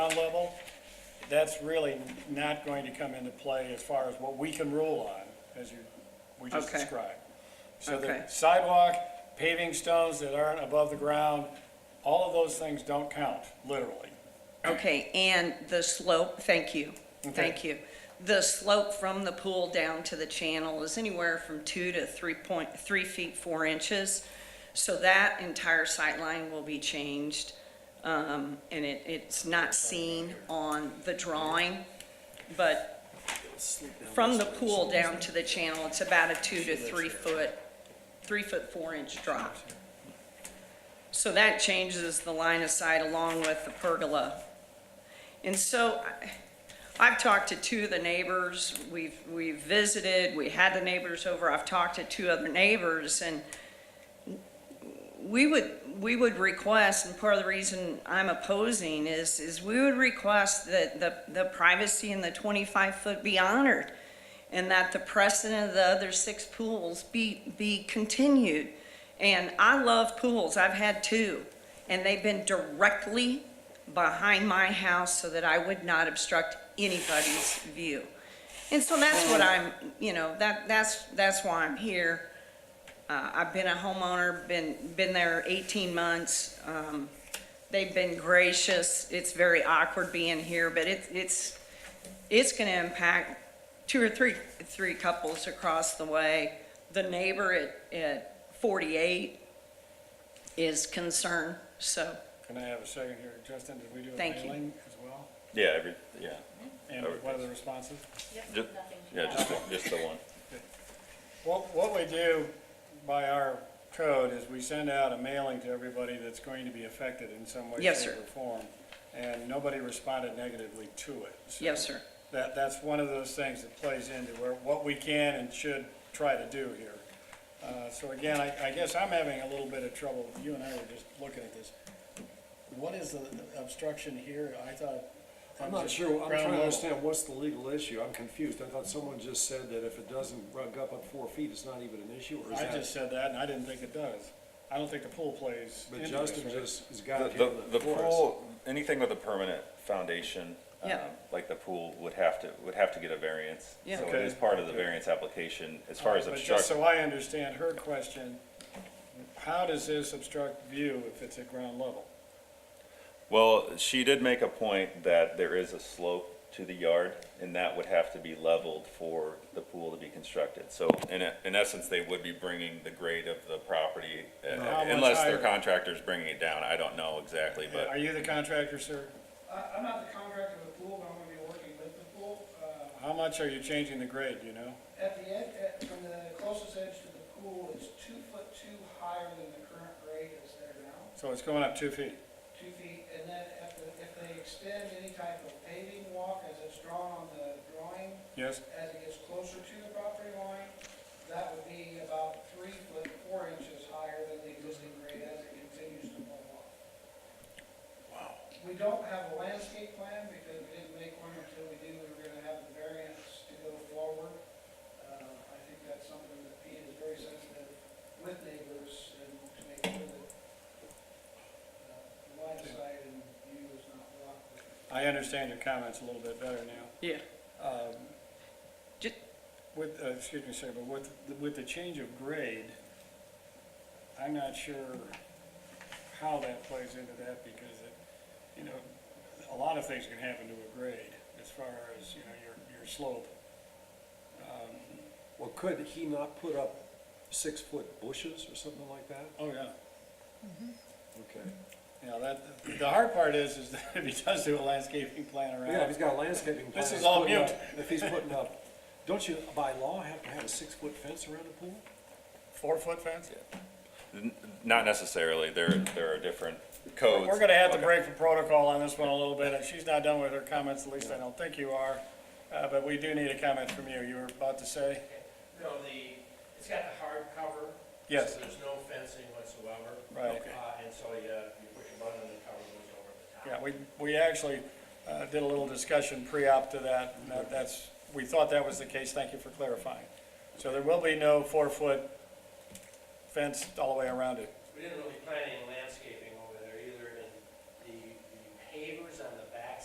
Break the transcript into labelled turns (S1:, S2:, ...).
S1: level, that's really not going to come into play as far as what we can rule on, as you, we just
S2: Okay.
S1: described. So
S2: Okay.
S1: the sidewalk, paving stones that aren't above the ground, all of those things don't count, literally.
S2: Okay, and the slope, thank you,
S1: Okay.
S2: thank you. The slope from the pool down to the channel is anywhere from two to three point, three feet, four inches. So that entire sight line will be changed, um, and it, it's not seen on the drawing, but from the pool down to the channel, it's about a two to three foot, three foot, four inch drop. So that changes the line of sight along with the pergola. And so I- I've talked to two of the neighbors, we've, we've visited, we had the neighbors over, I've talked to two other neighbors, and we would, we would request, and part of the reason I'm opposing is, is we would request that the, the privacy in the 25-foot be honored, and that the precedent of the other six pools be, be continued. And I love pools, I've had two, and they've been directly behind my house so that I would not obstruct anybody's view. And so that's what I'm, you know, that, that's, that's why I'm here. Uh, I've been a homeowner, been, been there 18 months. Um, They've been gracious. It's very awkward being here, but it's, it's, it's going to impact two or three, three couples across the way. The neighbor at, at 48 is concerned, so,
S1: Can I have a second here? Justin, did we do a
S2: Thank you.
S1: mailing as well?
S3: Yeah, every, yeah,
S1: And
S3: Over.
S1: what are the responses?
S3: just, yeah, just, the- just the one.
S1: What, what we do by our code is we send out a mailing to everybody that's going to be affected in some way,
S2: Yes,
S1: shape,
S2: sir.
S1: or form. And nobody responded negatively to it. So
S2: yes, sir.
S1: That, that's one of those things that plays into where, what we can and should try to do here. Uh, so again, I, I guess I'm having a little bit of trouble, you and I were just looking at this. What is the obstruction here? I thought.
S4: I'm not sure, I'm
S1: Ground
S4: trying to
S1: level.
S4: understand what's the legal issue, I'm confused, I thought someone just said that if it doesn't rug up at four feet, it's not even an issue, or is
S1: I just
S4: that?
S1: said that and I didn't think it does. I don't think the pool plays
S4: But
S1: into this,
S4: Justin
S1: right?
S4: just has
S1: Uh,
S4: got it here
S3: The,
S4: in
S3: the
S4: the forest.
S3: pool, anything with a permanent foundation, um,
S2: Yeah.
S3: like the pool would have to, would have to get a variance.
S2: Yeah.
S3: So it
S1: Okay. Uh,
S3: is part of the variance application as far as
S1: But just
S3: obstruction.
S1: so I understand her question, how does this obstruct view if it's at ground level?
S3: Well, she did make a point that there is a slope to the yard and that would have to be leveled for the pool to be constructed. So in, e- in essence, they would be bringing the grade of the property, uh,
S1: How much
S3: unless their
S1: higher?
S3: contractor's bringing it down. I don't know exactly, but.
S1: Are you the contractor, sir?
S5: I- I'm not the contractor of the pool, but I'm gonna be working with the pool. Uh,
S1: How much are you changing the grade, do you know?
S5: At the end, at- from the closest edge to the pool, it's two foot two higher than the current grade is there now,
S1: So it's going up two feet.
S5: two feet. And then if, the- if they extend any type of paving walk as it's drawn on the drawing,
S1: Yes?
S5: as it gets closer to the property line, that would be about three foot four inches higher than the existing grade as it continues to move off. We don't have a landscape plan because we didn't make one until we knew we were gonna have the variance to go forward. Uh, I think that's something that Pete is very sensitive with neighbors and to make sure that uh, the line of sight and view is not blocked.
S1: I understand your comments a little bit better now.
S2: Yeah.
S1: Um,
S2: Ju-
S1: With, uh, excuse me, sir, but with, with the change of grade, I'm not sure how that plays into that because it, you know, a lot of things can happen to a grade as far as, you know, your, your slope.
S4: Well, could he not put up six-foot bushes or something like that?
S1: Oh, yeah.
S4: Okay.
S1: Yeah, that, the hard part is, is that if he does do a landscaping plan
S4: Yeah, if
S1: around,
S4: he's got a landscaping plan.
S1: This is
S4: he's
S1: all
S4: putting up-
S1: mute.
S4: If he's putting up, don't you by law have to have a six-foot fence around the pool?
S1: four-foot fence?
S3: N- Not necessarily, there, there are different codes.
S1: We're gonna have to
S3: Okay.
S1: break for protocol on this one a little bit. If she's not done with her comments, at least I don't think you are. Uh, but we do need a comment from you. You were about to say?
S6: No, the, it's got the hard cover.
S1: Yes.
S6: So there's no fencing whatsoever.
S1: Right. Okay.
S6: Uh, and so you, you push a button and the cover goes over the top.
S1: Yeah, we, we actually, uh, did a little discussion pre-op to that. and that- That's, we thought that was the case. Thank you for clarifying. So there will be no four-foot fence all the way around it.
S6: We didn't really plan any